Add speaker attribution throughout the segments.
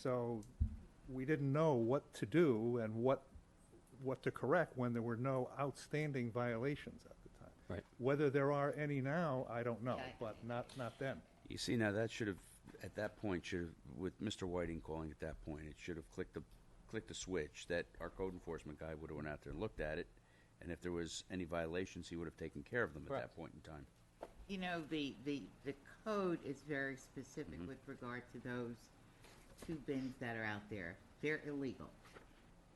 Speaker 1: So we didn't know what to do and what, what to correct when there were no outstanding violations at the time.
Speaker 2: Right.
Speaker 1: Whether there are any now, I don't know,
Speaker 3: Yeah, I-
Speaker 1: but not, not then.
Speaker 2: You see, now that should have, at that point, should have, with Mr. Whiting calling at that point, it should have clicked the, clicked the switch that our code enforcement guy would have went out there and looked at it, and if there was any violations, he would have taken care of them at
Speaker 1: Correct.
Speaker 2: that point in time.
Speaker 3: You know, the, the, the code is very specific with regard to those two bins that are out there. They're illegal.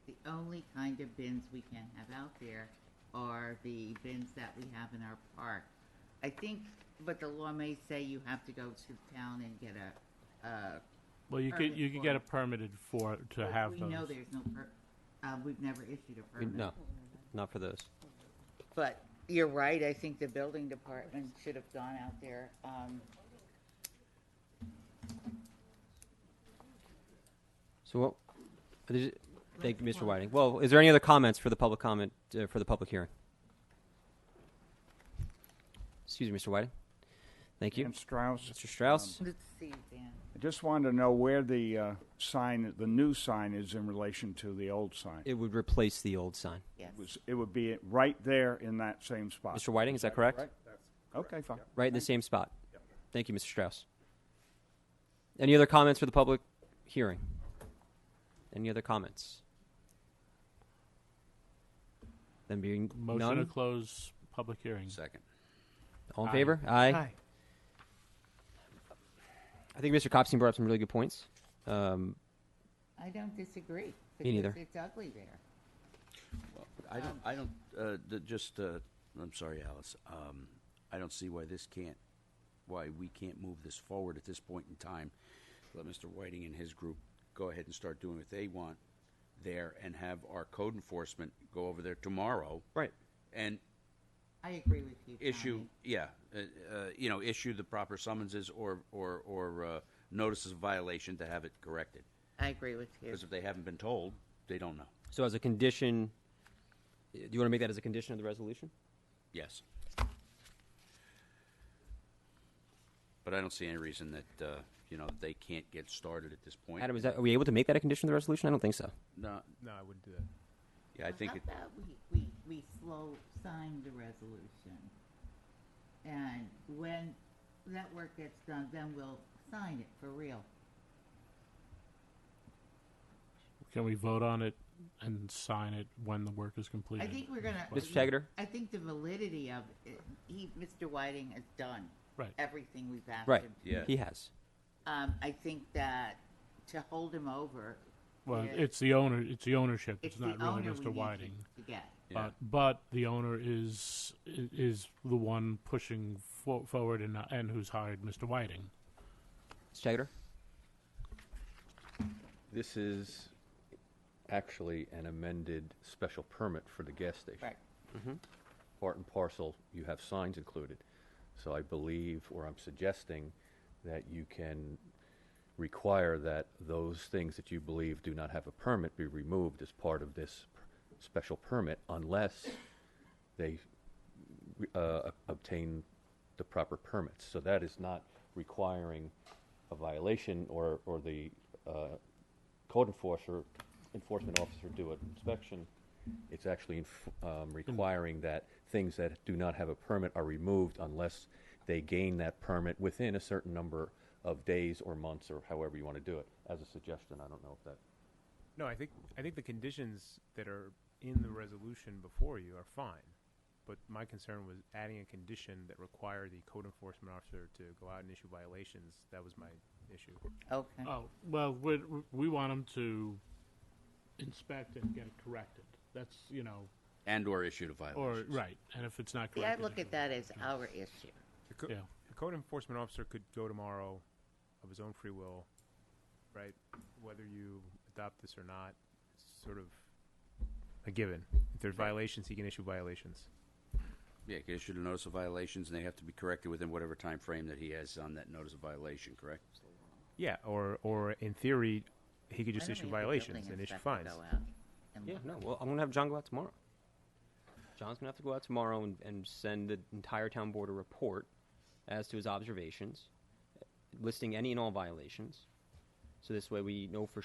Speaker 3: The only kind of bins we can have out there are the bins that we have in our park. I think, but the law may say you have to go to town and get a, uh,
Speaker 4: Well, you
Speaker 3: Permit
Speaker 4: could, you could
Speaker 3: for
Speaker 4: get
Speaker 3: it.
Speaker 4: it permitted for, to
Speaker 3: But
Speaker 4: have
Speaker 3: We know
Speaker 4: those.
Speaker 3: there's no per, uh, we've never issued a permit.
Speaker 5: No, not for those.
Speaker 3: But you're right, I think the building department should have gone out there, um,
Speaker 5: So what, did you- thank you, Mr.
Speaker 3: Well-
Speaker 5: Whiting. Well, is there any other comments for the public comment, uh, for the public hearing? Excuse me, Mr. Whiting. Thank you.
Speaker 6: And Strauss,
Speaker 5: Mr. Strauss?
Speaker 3: let's see, Dan.
Speaker 6: I just wanted to know where the uh, sign, the new sign is in relation to the old sign.
Speaker 5: It would replace the old sign.
Speaker 3: Yes.
Speaker 6: It was- It would be right there in that same spot.
Speaker 5: Mr. Whiting, is that correct?
Speaker 6: Correct? Okay, fine.
Speaker 5: Right in the same spot? Thank you, Mr. Strauss. Any other comments for the public hearing? Any other comments? Then being
Speaker 4: Motion to
Speaker 5: none,
Speaker 4: close public hearing.
Speaker 2: Second.
Speaker 5: all in
Speaker 4: Aye.
Speaker 5: favor? Aye. I think Mr. Copstein brought up some really good points. Um,
Speaker 3: I don't disagree.
Speaker 5: Me neither.
Speaker 3: Because it's ugly there.
Speaker 2: I don't, I don't, uh, th- just, uh, I'm sorry, Alice, um, I don't see why this can't, why we can't move this forward at this point in time. Let Mr. Whiting and his group go ahead and start doing what they want there and have our code enforcement go over there tomorrow.
Speaker 5: Right.
Speaker 2: And
Speaker 3: I agree with you, Tommy.
Speaker 2: issue, yeah, uh, uh, you know, issue the proper summonses or, or, or, uh, notices of violation to have it corrected.
Speaker 3: I agree with you.
Speaker 2: Because if they haven't been told, they don't know.
Speaker 5: So as a condition, do you want to make that as a condition of the resolution?
Speaker 2: Yes. But I don't see any reason that, uh, you know, they can't get started at this point.
Speaker 5: Adam, is that, are we able to make that a condition of the resolution? I don't think so.
Speaker 2: No,
Speaker 7: No, I wouldn't do that.
Speaker 2: yeah, I think,
Speaker 3: How
Speaker 2: it-
Speaker 3: about we, we, we slow sign the resolution? And when that work gets done, then we'll sign it for real.
Speaker 4: Can we vote on it and sign it when the work is
Speaker 3: I
Speaker 4: completed?
Speaker 3: think we're gonna.
Speaker 5: Mr. Tegater?
Speaker 3: I think the validity of, it- he, Mr. Whiting has done
Speaker 4: Right.
Speaker 3: everything we've asked
Speaker 5: Right.
Speaker 3: him.
Speaker 2: yeah.
Speaker 5: He has.
Speaker 3: Um, I think that to hold him over.
Speaker 4: Well,
Speaker 3: is-
Speaker 4: it's the owner, it's the ownership,
Speaker 3: it's
Speaker 4: it's
Speaker 3: the
Speaker 4: not really
Speaker 3: owner we
Speaker 4: Mr.
Speaker 3: need
Speaker 4: Whiting.
Speaker 3: to- to get.
Speaker 2: Yeah.
Speaker 4: But, but the owner is, i- is the one pushing fo- forward and, and who's hired Mr. Whiting.
Speaker 5: Mr. Tegater?
Speaker 7: This is actually an amended special permit for the gas station.
Speaker 3: Right.
Speaker 7: Part and parcel, you have signs included. So I believe, or I'm suggesting, that you can require that those things that you believe do not have a permit be removed as part of this p- special permit unless they uh, obtain the proper permits. So that is not requiring a violation or, or the uh, code enforcer, enforcement officer do an inspection. It's actually inf- um, requiring that things that do not have a permit are removed unless they gain that permit within a certain number of days or months or however you want to do it. As a suggestion, I don't know if that.
Speaker 8: No, I think I think the conditions that are in the resolution before you are fine. But my concern was adding a condition that required the code enforcement officer to go out and issue violations. That was my issue.
Speaker 3: Okay.
Speaker 4: Oh, well, we, we want him to inspect and get it corrected. That's, you know,
Speaker 2: and/or issued a
Speaker 4: or,
Speaker 2: violation.
Speaker 4: right, and if it's not
Speaker 3: See, I
Speaker 4: corrected.
Speaker 3: look at that as our issue.
Speaker 8: The, co-
Speaker 4: Yeah.
Speaker 8: the code enforcement officer could go tomorrow of his own free will, right? Whether you adopt this or not, it's sort of a given. If there's violations, he can issue violations.
Speaker 2: Yeah, he issued a notice of violations and they have to be corrected within whatever time frame that he has on that notice of violation, correct?
Speaker 8: Yeah, or or in theory, he could just
Speaker 3: Why don't
Speaker 8: issue
Speaker 3: we have the
Speaker 8: violations
Speaker 3: building
Speaker 8: and issue
Speaker 3: inspector
Speaker 8: fines.
Speaker 3: go out and
Speaker 5: Yeah,
Speaker 3: look?
Speaker 5: no. Well, I'm gonna have John go out tomorrow. John's gonna have to go out tomorrow and, and send the entire town board a report as to his observations, listing any and all violations, So this way we know for